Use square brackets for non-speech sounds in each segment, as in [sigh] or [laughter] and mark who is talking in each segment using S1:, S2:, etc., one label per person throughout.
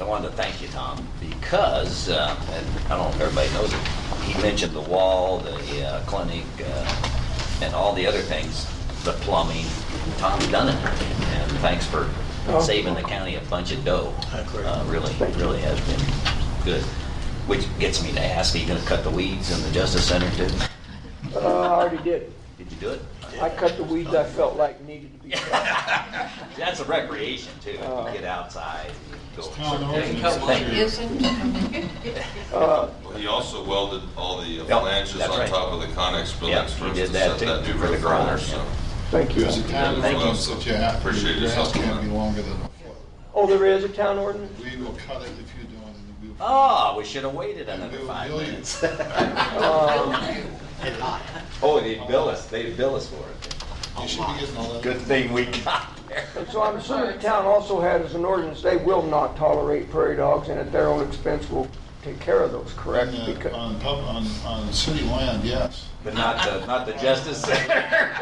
S1: I wanted to thank you, Tom, because, uh, and I don't know if everybody knows it, he mentioned the wall, the uh, clinic, uh, and all the other things, the plumbing. Tom's done it, and thanks for saving the county a bunch of dough.
S2: Oh. I agree.
S1: Uh, Really, really has been good. Which gets me to ask, are you gonna cut the weeds in the Justice Center too?
S3: Uh, I already did.
S1: Did you do it?
S3: I cut the weeds I felt like needed to be cut.
S1: That's a recreation too, You
S3: Oh.
S1: get outside. and go.
S2: town ordinance.
S1: Thank you.
S3: Uh,
S4: He also welded all the
S1: Yeah,
S4: flanges
S1: that's
S4: on
S1: right.
S4: top of the Conex
S1: Yeah,
S4: buildings
S1: he
S4: for us
S1: did
S4: to
S1: that
S4: set
S1: too,
S4: that new
S1: for the
S4: roof on there,
S1: ground,
S4: so.
S1: yeah.
S3: Thank you.
S5: There's a time
S1: Thank you.
S5: limit that you have, to-
S4: Appreciate
S5: your
S4: your
S5: grass
S4: help on
S5: can't
S4: that.
S5: be longer than a foot.
S3: Oh, there is a town ordinance?
S5: We will cut it if you don't, and we'll.
S1: Oh, we should have waited another
S5: We'll
S1: five
S5: bill you.
S1: minutes. [laughs]
S5: [laughs]
S3: Um,
S6: Oh, they bill us, they bill us for it.
S5: You should be getting all that.
S6: Good thing we got there.
S3: And so I'm assuming the town also has an ordinance, they will not tolerate prairie dogs, and at their own expense will take care of those, correct?
S5: On, the-
S3: Because-
S5: uh, on pub, on, on city land, yes.
S1: But not the, not the Justice Center.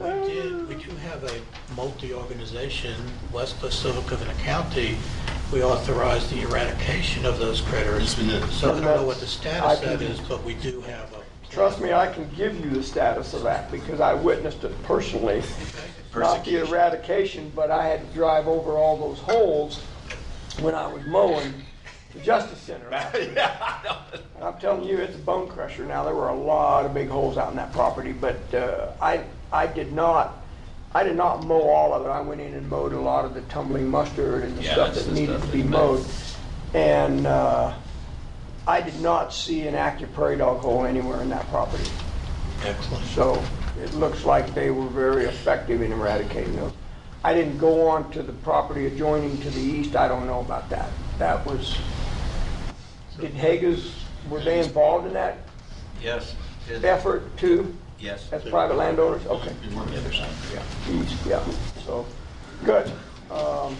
S2: We did, we do have a multi-organization, West Pacific of an county. We authorized the eradication of those critters.
S5: Yes, we did.
S2: So I don't know what the status
S3: I
S2: of that
S3: can-
S2: is, but we do have a.
S3: Trust me, I can give you the status of that because I witnessed it personally. Not the
S6: [laughs]
S1: Persecution.
S3: eradication, but I had to drive over all those holes when I was mowing the Justice Center.
S1: [laughs]
S3: And I'm telling you, it's a bone crusher now. There were a lot of big holes out in that property, but uh, I, I did not, I did not mow all of it. I went in and mowed a lot of the tumbling mustard and the
S1: Yeah,
S3: stuff
S1: that's
S3: that
S1: the
S3: needed
S1: stuff
S3: to
S1: that
S3: be
S1: you
S3: mowed. And uh, I did not see an active prairie dog hole anywhere in that property.
S2: Excellent.
S3: So it looks like they were very effective in eradicating those. I didn't go on to the property adjoining to the east, I don't know about that. That was, did Hagas, were they involved in that
S7: Yes, it-
S3: effort too,
S7: yes.
S3: as private landowners? Okay.
S5: We worked it out.
S3: East, yeah, so, good. Um,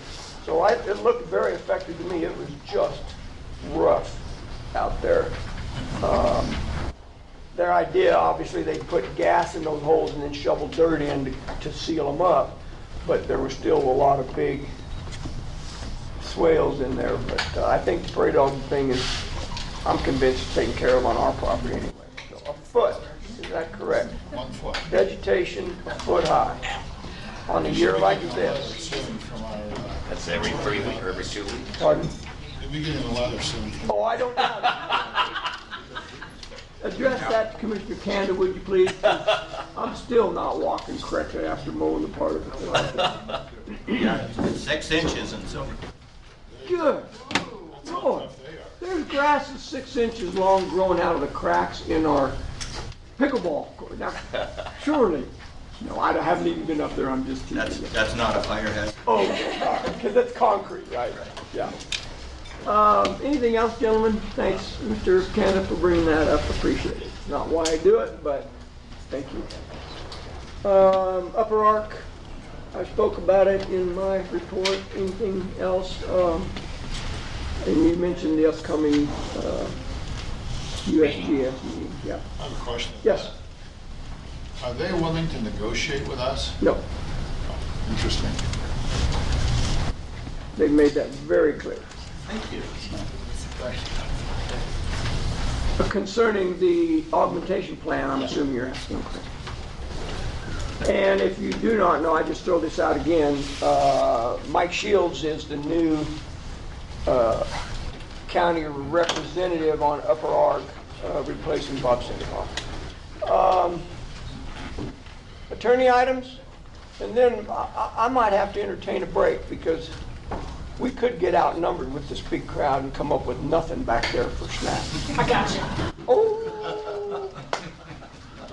S3: So I, it looked very effective to me, it was just rough out there. Um, Their idea, obviously, they put gas in those holes and then shoveled dirt in to- to seal them up, but there was still a lot of big swales in there, but uh, I think the prairie dog thing is, I'm convinced it's taken care of on our property anyway. So A foot, is that correct?
S5: One foot.
S3: vegetation a foot high on a year like
S5: Getting a letter
S3: this.
S5: soon from our, uh,
S1: That's every three weeks, every two weeks.
S3: Pardon?
S5: You'll be getting a letter soon. from-
S3: Oh, I don't know. [laughs] Address that to Commissioner Kanda, would you please? I'm still not walking correctly after mowing the part of the
S7: Six inches and so.
S3: Good. Lord, there's grass that's six inches long growing out of the cracks in our pickleball court. Now, surely, no, I haven't even been up there, I'm just teasing
S7: That's,
S3: you.
S7: that's not a fire hazard.
S3: Oh, because that's concrete, right? Yeah. Um, Anything else, gentlemen? Thanks, Mr. Canada, for bringing that up, appreciate it. Not why I do it, but thank you. Um, Upper Ark, I spoke about it in my report. Anything else? Um, And you mentioned the upcoming uh, USGS meeting, yeah.
S5: I have a question.
S3: Yes,
S5: Are they willing to negotiate with us?
S3: no,
S5: Interesting.
S3: they've made that very clear.
S5: Thank you.
S3: Uh, Concerning the augmentation plan, I'm assuming you're asking, okay. And if you do not know, I just throw this out again, uh, Mike Shields is the new uh, county representative on Upper Ark, uh, replacing Bob Sandoval. Um, Attorney items, and then I- I I might have to entertain a break, because we could get outnumbered with this big crowd and come up with nothing back there for snacks.
S8: I got you.
S3: Oh,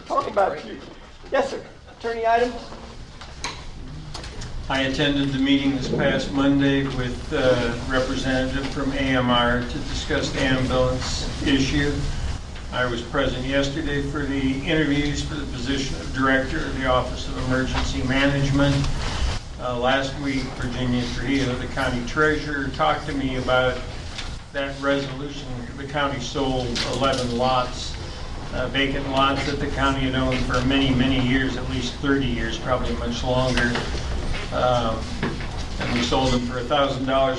S3: talk about you. Yes, sir. Attorney item?
S9: I attended the meeting this past Monday with a representative from AMR to discuss the ambulance issue. I was present yesterday for the interviews for the position of Director of the Office of Emergency Management. Uh, Last week, Virginia Trujillo, the county treasurer, talked to me about that resolution. The county sold 11 lots, uh, vacant lots that the county had owned for many, many years, at least 30 years, probably much longer. Um, And we sold them for $1,000